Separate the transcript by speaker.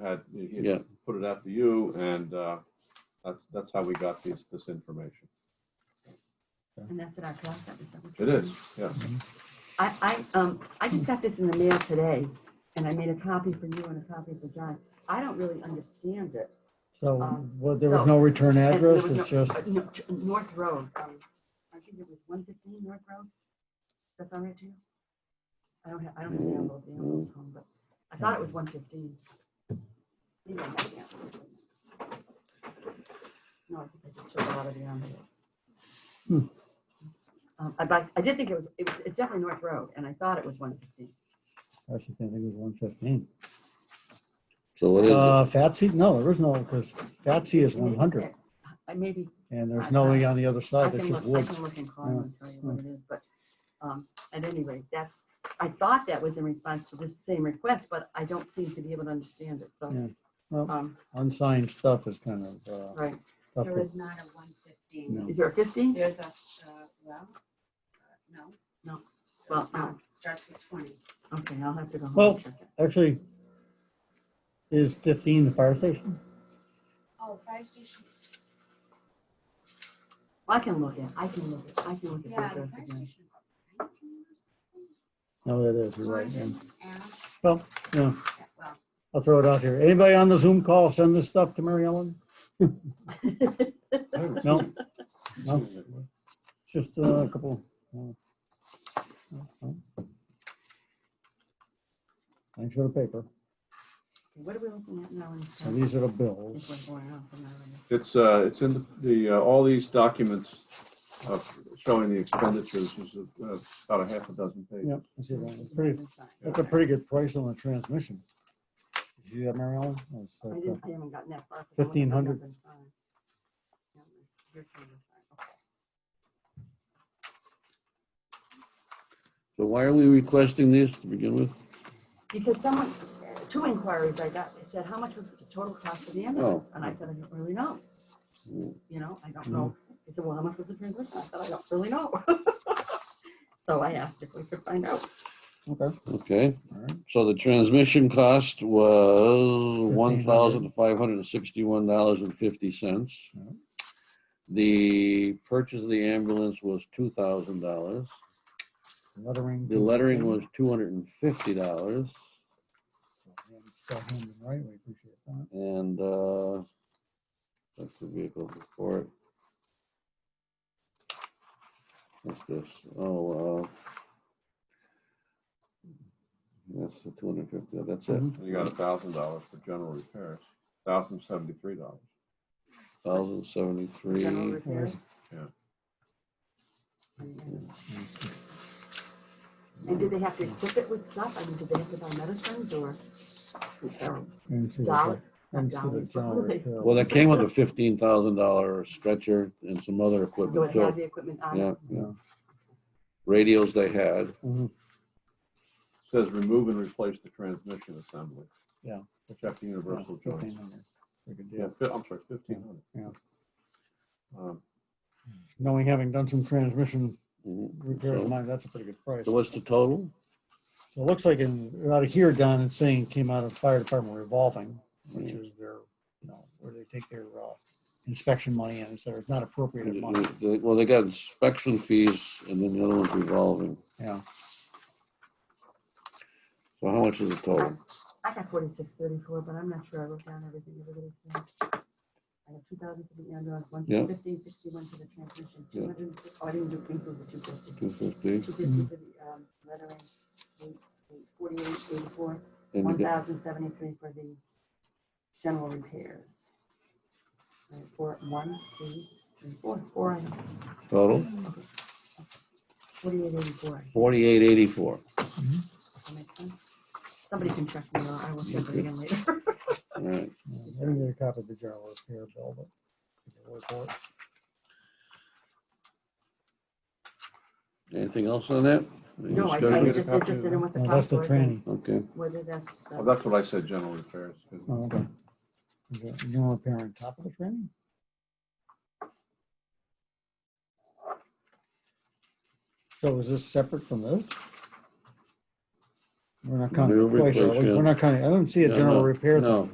Speaker 1: had, you- you
Speaker 2: Yeah.
Speaker 1: put it out to you, and uh, that's, that's how we got this, this information.
Speaker 3: And that's at our cost office. that we-
Speaker 1: It is, yeah.
Speaker 3: I, I, um, I just got this in the mail today, and I made a copy for you and a copy for John. I don't really understand it.
Speaker 4: So,
Speaker 3: Um,
Speaker 4: well, there was
Speaker 3: so-
Speaker 4: no return
Speaker 3: And there
Speaker 4: address,
Speaker 3: was no-
Speaker 4: it's just,
Speaker 3: uh, no, t- North Road, um, I think it was one fifteen North Road. That's all right to you? I don't have, I don't have the envelope, the envelope's home, but I thought it was one fifteen. No, I think I just took it out of the envelope.
Speaker 4: Hmm.
Speaker 3: Um, I'd like, I did think it was, it was, it's definitely North Road, and I thought it was one fifteen.
Speaker 4: I should think it was one fifteen.
Speaker 2: So what is it?
Speaker 4: Uh, Fatsy, no, there is no, because Fatsy is one hundred,
Speaker 3: I maybe,
Speaker 4: and there's no way on the other
Speaker 3: I
Speaker 4: side,
Speaker 3: can
Speaker 4: that's just
Speaker 3: look, I
Speaker 4: woods.
Speaker 3: can look and call
Speaker 4: Yeah.
Speaker 3: and tell you what it is, but, um, at any rate, that's, I thought that was in response to this same request, but I don't seem to be able to understand it, so.
Speaker 4: Yeah. Well-
Speaker 3: Um,
Speaker 4: Unsigned stuff is kind of, uh,
Speaker 3: right,
Speaker 4: tough
Speaker 5: There
Speaker 4: to,
Speaker 5: is not a one fifteen.
Speaker 4: No.
Speaker 3: is there a fifteen?
Speaker 5: There's a, uh, well, uh, no.
Speaker 3: No.
Speaker 5: There's
Speaker 3: Well,
Speaker 5: not. Starts with twenty.
Speaker 3: Okay, I'll have to go home
Speaker 4: Well-
Speaker 3: and check it.
Speaker 4: actually, is fifteen the fire station?
Speaker 5: Oh, fire station.
Speaker 3: I can look at, I can look, at- I can look at the
Speaker 5: Yeah, the
Speaker 3: address
Speaker 5: fire
Speaker 3: again.
Speaker 5: station. is Nineteen or
Speaker 4: No, it is, you're right.
Speaker 5: something.
Speaker 4: and-
Speaker 5: And,
Speaker 4: Well, yeah,
Speaker 5: yeah, well,
Speaker 4: I'll throw it out here. Anybody on the Zoom call, send this stuff to Mary Ellen?
Speaker 1: I haven't
Speaker 4: No.
Speaker 1: seen it.
Speaker 4: No.
Speaker 1: Seen it.
Speaker 4: It's Just uh, a couple. uh, uh, Thanks for the paper.
Speaker 3: What are we looking at now? in this
Speaker 4: So
Speaker 3: tab?
Speaker 4: these are the
Speaker 3: I think
Speaker 4: bills.
Speaker 3: we're going off on that one.
Speaker 1: It's, uh, it's in the, uh, all these documents uh, showing the expenditures, which is uh, about a half a dozen pages.
Speaker 4: Yep. I see that. It's pretty-
Speaker 3: Inside.
Speaker 4: That's a pretty good price on the transmission. Did you have Mary Ellen? It's
Speaker 3: I
Speaker 4: like, uh,
Speaker 3: didn't, I haven't gotten that far. 'cause I only got
Speaker 4: 1500.
Speaker 3: up and signed. Yeah, here's some of the sign. Okay.
Speaker 2: So why are we requesting these to begin with?
Speaker 3: Because someone, two inquiries I got, they said, how much was the total cost of the ambulance? And I said, I don't really know.
Speaker 2: Mm.
Speaker 3: You know, I don't know. They said, well, how much was the transmission? I said, I don't really know. So I asked if we could find out.
Speaker 4: uh, Okay.
Speaker 2: Okay,
Speaker 4: all right.
Speaker 2: so the transmission cost was one thousand five hundred and sixty-one dollars and fifty cents.
Speaker 4: Yeah.
Speaker 2: The purchase of the ambulance was two thousand dollars.
Speaker 4: Lettering.
Speaker 2: The lettering was two hundred and fifty dollars.
Speaker 4: Yeah, it's still handed Right, we appreciate that.
Speaker 2: And, uh, that's the vehicle before it. What's this? Oh, uh. That's the two hundred fifty, that's it,
Speaker 1: Mm-hmm. You got a thousand dollars for general repairs, thousand seventy-three dollars.
Speaker 2: thousand
Speaker 3: General
Speaker 2: seventy-three.
Speaker 3: repairs.
Speaker 1: Yeah.
Speaker 3: uh, And did they have to equip it with stuff? I mean, did they have to buy medicines or?
Speaker 4: And see the-
Speaker 3: Dollar.
Speaker 4: and see the
Speaker 3: Dollar.
Speaker 4: dollar repair.
Speaker 2: Well, that came with a fifteen thousand dollar stretcher and some other
Speaker 3: So it
Speaker 2: equipment
Speaker 3: had
Speaker 2: too.
Speaker 3: the equipment on
Speaker 2: Yeah,
Speaker 3: it?
Speaker 2: yeah. Radios they had,
Speaker 4: Mhm,
Speaker 1: Says remove and replace the transmission assembly.
Speaker 4: Yeah.
Speaker 1: Check the universal
Speaker 4: yeah,
Speaker 1: joints.
Speaker 4: 1500. We could do
Speaker 1: Yeah,
Speaker 4: it.
Speaker 1: fi- I'm sorry, fifteen hundred.
Speaker 4: Yeah.
Speaker 1: Um,
Speaker 4: Knowing, having done some transmission
Speaker 2: Mhm.
Speaker 4: repairs,
Speaker 2: So-
Speaker 4: mine, that's a pretty good price.
Speaker 2: so what's the total?
Speaker 4: So it looks like in, out of here, Don, it's saying it came out of fire department revolving, which
Speaker 2: Yeah.
Speaker 4: is their, you know, where they take their uh, inspection money and so it's not appropriated
Speaker 2: Hmm.
Speaker 4: money.
Speaker 2: Well, they got inspection fees and then the other one's revolving.
Speaker 4: Yeah,
Speaker 2: So how much is the total?
Speaker 3: I got forty-six thirty-four, but I'm not sure I wrote down everything everybody said. I have two thousand for the ambulance, one
Speaker 2: Yeah.
Speaker 3: fifteen sixty-one for the transmission,
Speaker 2: Yeah.
Speaker 3: two hundred, oh, I didn't do include the two fifty.
Speaker 2: Two fifty?
Speaker 3: Two fifty for the, um, lettering, eight- eight forty-eight eighty-four,
Speaker 2: And
Speaker 3: one
Speaker 2: you get-
Speaker 3: thousand seventy-three for the general repairs. Right, Four, one, two, three, four, four items,
Speaker 2: total,
Speaker 3: forty-eight eighty-four.
Speaker 2: forty-eight eighty-four.
Speaker 3: Somebody can check me out, I will check it
Speaker 2: Okay.
Speaker 3: again later.
Speaker 2: All right.
Speaker 4: Yeah, I didn't get a copy of the general repair bill, but. we can work for it.
Speaker 2: Anything else on that? Any
Speaker 3: No, I, I
Speaker 2: discussion?
Speaker 3: was
Speaker 1: get a copy
Speaker 3: just
Speaker 1: of
Speaker 3: interested
Speaker 1: that?
Speaker 3: in what the
Speaker 4: No, Oh, That's
Speaker 3: cost
Speaker 4: the
Speaker 3: was.
Speaker 4: training.
Speaker 2: Okay,
Speaker 3: whether that's, uh,
Speaker 1: Well, that's what I said, general repairs.
Speaker 4: Oh, okay. Is that General repair on top of the training? So is this separate from this? We're not counting
Speaker 2: New
Speaker 4: the price, are we?
Speaker 2: replace, yeah.
Speaker 4: We're not counting, I don't see a
Speaker 2: No,
Speaker 4: general
Speaker 2: no,
Speaker 4: repair. thing.
Speaker 2: Uh, no.